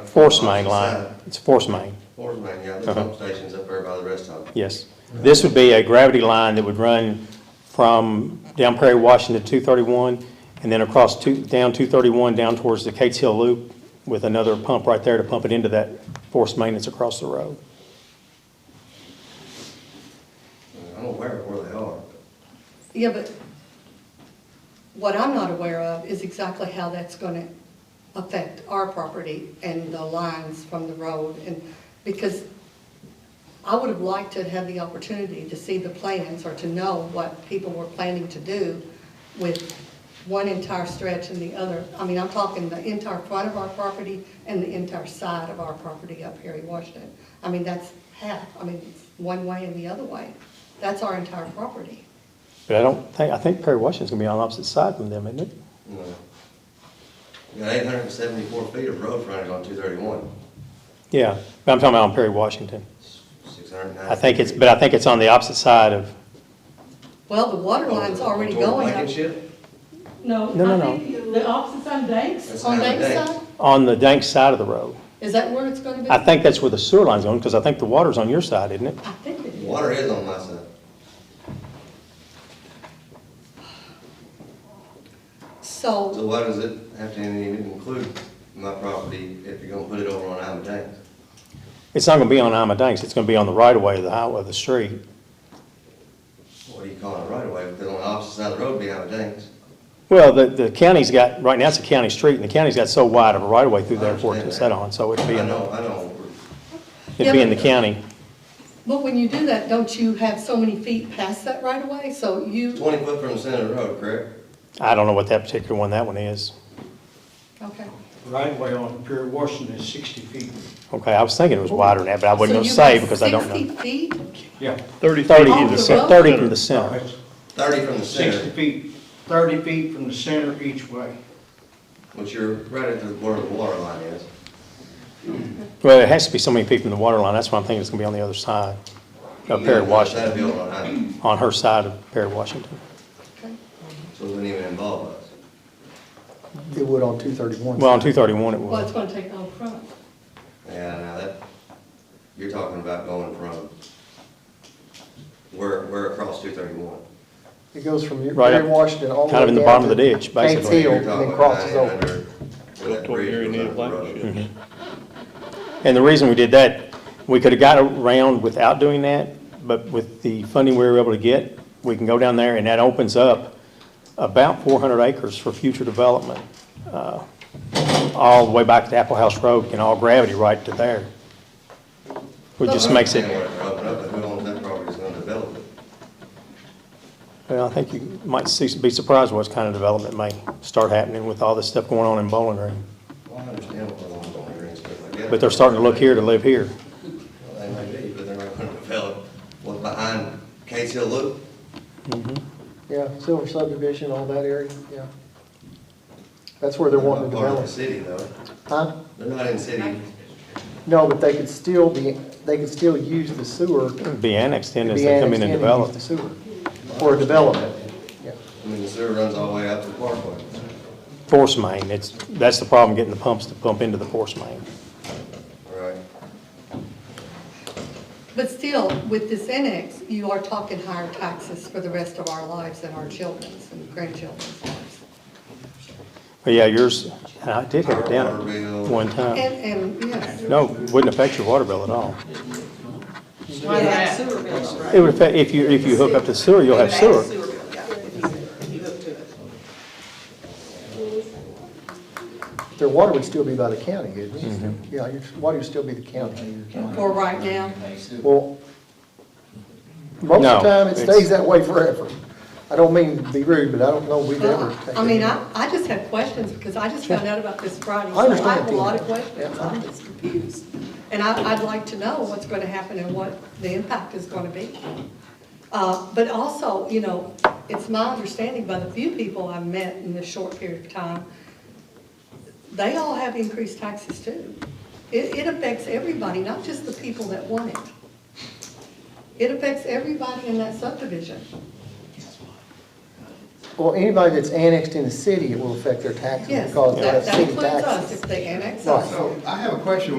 force main line. Uh-huh. It's a force main, Forest main, yeah, the pump station's up there by the rest of them. yes. This would be a gravity line that would run from down Prairie Washington to 231, and then across two, down 231, down towards the Cates Hill Loop with another pump right there to pump it into that force main that's across the road. I'm aware of where they are. Yeah, but what I'm not aware of is exactly how that's gonna affect our property and the lines from the road, and, because I would have liked to have the opportunity to see the plans or to know what people were planning to do with one entire stretch and the other. I mean, I'm talking the entire front of our property and the entire side of our property up here in Washington. I mean, that's half, I mean, it's one way and the other way. That's our entire property. But I don't think, I think Prairie Washington's gonna be on the opposite side from them, isn't it? No. You got eight hundred and seventy-four feet of road frontage on two thirty-one, Yeah, but I'm talking about on Prairie Washington. six hundred and nine. I think it's, but I think it's on the opposite side of, Well, the Oh, water line's already going. Blankenship? No, No, no, I think the opposite on Banks, That's On not a Banks date. side? on the dank side of the road. Is that where it's gonna be? I think that's where the sewer line's going, because I think the water's on your side, isn't it? I think it is. Water is on my side. So So, why does it have to even include my property if you're gonna put it over on Almadank? It's not gonna be on Amadanks, it's gonna be on the right-of-way of the highway, of the street. What do you call it right away? Because on the opposite side of the road be Almadank. Well, the, the county's got, right now it's a county street, and the county's got so wide of a right-of-way through there for it to set on, so it'd I be in, know, I know. it'd be in the county. but when you do that, don't you have so many feet past that right away? So you, Twenty foot from the center of the road, correct? I don't know what that particular one, that one is. okay. Right away on Pier Washington is sixty feet. Okay, I was thinking it was wider than that, but I wasn't So gonna you say have because I don't know. Sixty feet? Yeah. Thirty Thirty feet Off from the the either side. center, road? thirty from the center. It's Thirty from the Sixty center, feet, thirty feet from the center each way. which you're right at the, where the water line is. Well, it has to be so many feet from the water line, that's why I'm thinking it's gonna be on the other side of Perry Washington, That'd be over on Almadank, on her side of Perry Washington. Okay. so it wouldn't even involve us. It would on two thirty-one. Well, on two thirty-one it Well, it's was. gonna take all front. Yeah, now uh, that, you're talking about going from, we're, we're across two thirty-one. It goes from your- Right up- Perry Washington all the way kind of in the down bottom of to the ditch, Gates basically. Hill, and then crosses over. over. Toward Gary Neal Blankenship. And the reason we did that, we could have got around without doing that, but with the funding we were able to get, we can go down there and that opens up about four hundred acres for future development. uh, All the way back to Apple House Road and all gravity right to there. Which just makes I it, understand where it's broken up, but who owns that property is gonna develop it? well, I think you might see, be surprised what kind of development may start happening with all this stuff going on in Bowling Green. Well, I understand what the law don't agree and stuff like that. But they're starting to look here to live here. Well, They may be, but they're not gonna develop what's behind Case Hill Loop. Yeah, Silver subdivision, all that area, yeah. That's where they're wanting to Part of the develop. city though, Huh? they're not in city, No, but they could still be, they could still use the sewer. to Be annexed in as be they come in annexed and use develop. The sewer for development, yeah. I mean, the sewer runs all the way out to the parkway. Force main, it's, that's the problem, getting the pumps to pump into the force main. All right, But still, with this annex, you are talking higher taxes for the rest of our lives and our children's and grandchildren's lives. But yeah, yours, and I did have it down Our water bill. at one time. And, and, yes. No, wouldn't affect your water bill at all. Why they have sewer bills, right? It would affect, if you, if you hook up to sewer, you'll have They would sewer. add Sewer bill, yeah, if you, if you hook to it. Their water would still be by the county, it Mm-hmm. Yeah, your water would still be the county. For right now, Well, most No, of the time, it it's- stays that way forever. I don't mean to be rude, but I don't know we've ever Well, taken. I mean, I, I just have questions because I just found out about this Friday. so I understand, have a Tina. lot of questions. Yeah. I'm just confused. And I, I'd like to know what's going to happen and what the impact is going to be. Uh, But also, you know, it's my understanding by the few people I've met in this short period of time, they all have increased taxes too. It, it affects everybody, not just the people that want it. It affects everybody in that subdivision. Well, anybody that's annexed in the city, it will affect their taxes Yes, because that that's that city includes taxes. us if they annex us. Right. So I have a question